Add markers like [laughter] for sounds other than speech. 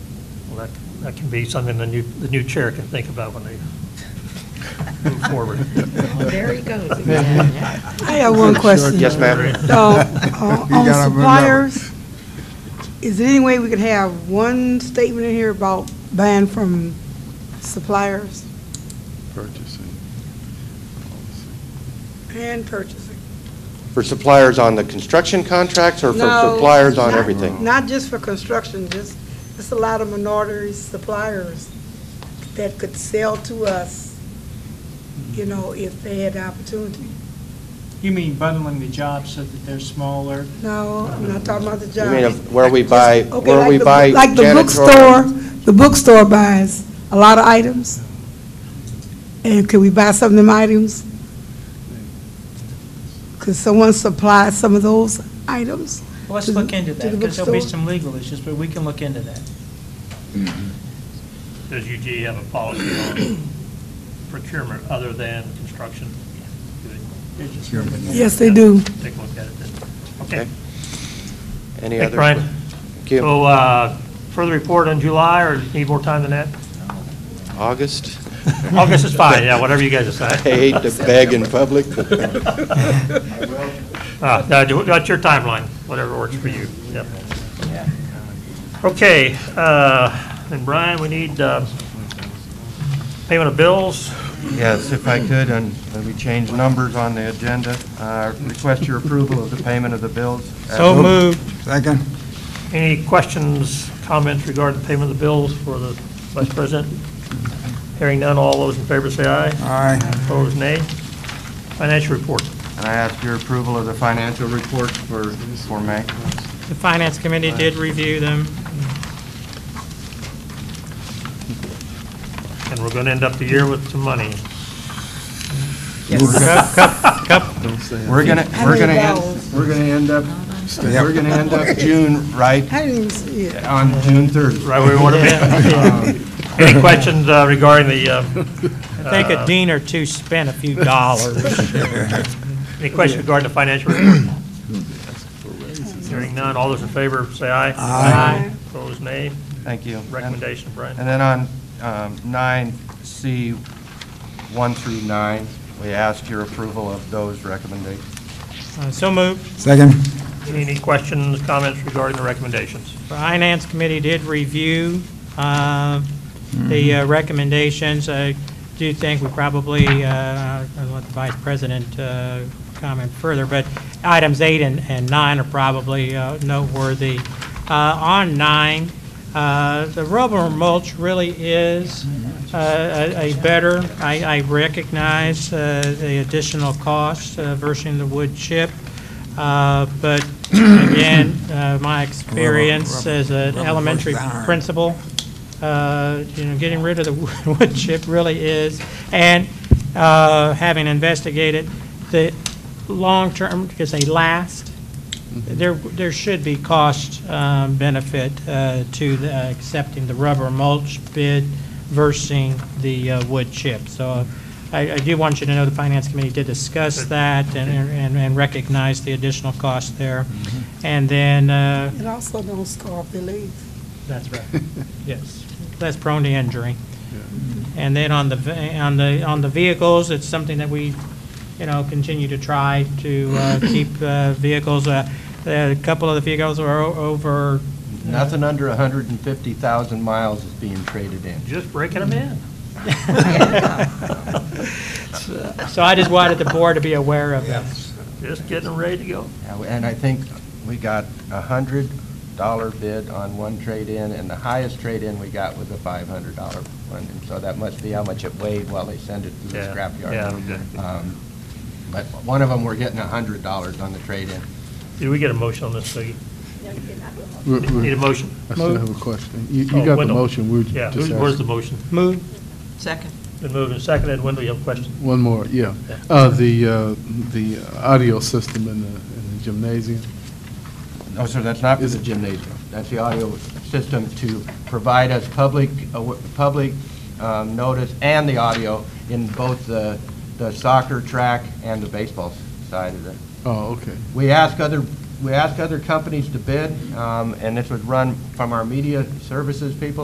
Well, that, that can be something the new, the new chair can think about when they move forward. [laughs] There he goes again. I have one question. Yes, ma'am. So, [laughs] uh, You on gotta remember. suppliers, is there any way we could have one statement in here about ban from suppliers Purchasing. policy. and purchasing? For suppliers on the construction contracts or for No, suppliers on not- everything? Not just for construction, just, just a lot of minority suppliers that could sell to us, you know, if they had the opportunity. You mean bundling the jobs so that they're smaller? No, I'm not talking about the You job. mean of where we buy, Okay, where like we the- buy Like the bookstore, janitorial? the bookstore buys a lot of items. And can we buy some of them items? Could someone supply some of those items? Well, Let's To the- look into to that, the because there'll be bookstore? [laughs] some legal issues, but we can look into that. Does UG have a policy on procurement other than construction? They're just- Yes, they do. Take a look at it then. Okay. Okay. Any Thanks, other? Brian. Thank you. So, uh, further report on July, or need more time than that? August? [laughs] August is fine, yeah, whatever you guys [laughs] I decide. hate to beg [laughs] in public, but Uh, no, do- That's your timeline, whatever works for you. Yep. Okay, uh, and Brian, we need uh, payment of bills. Yes, if I could, and let me change numbers on the agenda. Uh, Request your approval of the payment of the bills. So moved. Second? Any questions, comments regarding the payment of the bills for the vice president? Hearing none, all those in favor say aye. Aye. [laughs] Opposed, nay. Financial report. And I ask your approval of the financial reports for, for May. The Finance Committee did review them. And we're going to end up the year with some money. We're gonna, How we're many gonna, vowels? end- we're gonna end up, we're gonna end up June, right, I didn't even see it. on June Um, 30th. Right where we want to be. [laughs] Any questions uh, regarding the, uh, I think a dean or two spent a few dollars. any questions regarding the financial report? Hearing none, all those in favor say aye. Aye. Opposed, nay. Thank you. And Recommendation, Brian. and then on um, nine C, one through nine, we ask your approval of those recommendations. Uh, So moved. Second? Any questions, comments regarding the recommendations? The Finance Committee did review uh, the uh, recommendations. I do think we probably, uh, I'll let the Vice President uh, comment further, but items eight and and nine are probably uh, noteworthy. Uh, On nine, uh, the rubber mulch really is uh, a a better, I I recognize uh, the additional cost uh, versus the wood chip. Uh, But [clears throat] again, uh, my experience as an elementary principal, uh, you know, getting rid of the [laughs] wood wood chip really is, and uh, having investigated the long-term, because they last, there, there should be cost um, benefit uh, to the- accepting the rubber mulch bid versus the uh, wood chip. So I, I do want you to know the Finance Committee did discuss that and, and and recognize the additional cost there. And then, uh, It also don't scar if they leave. that's right, yes, less prone to injury. And then on the, ve- on the, on the vehicles, it's something that we, you know, continue to try to uh, keep uh, vehicles, uh, a couple of the vehicles are o- over [laughs] Nothing under 150,000 miles is being traded in. Just breaking them in. So I just wanted the board to be aware of that. Just getting them ready to go. Yeah, And I think we got a hundred dollar bid on one trade-in, and the highest trade-in we got was a five hundred dollar one. And so that must be how much it weighed while they sent it to the Yeah, scrapyard. yeah, exactly. Um, But one of them, we're getting a hundred dollars on the trade-in. Did we get a motion on this, Peggy? We're- Need a we're- motion? I still have a question. You Oh, you got the Wendell. motion, we were Yeah, just who's- where's the asking. motion? Move, Been moved and seconded. Wendell, you have a question? One more, yeah. Uh, The, uh, the audio system in the in the gymnasium, No, sir, that's not for the gymnasium. That's the audio system to provide us public, awa- public um, notice and the audio in both the the soccer track and the baseball side of the oh, okay. We ask other, we ask other companies to bid, um, and this was run from our media services people,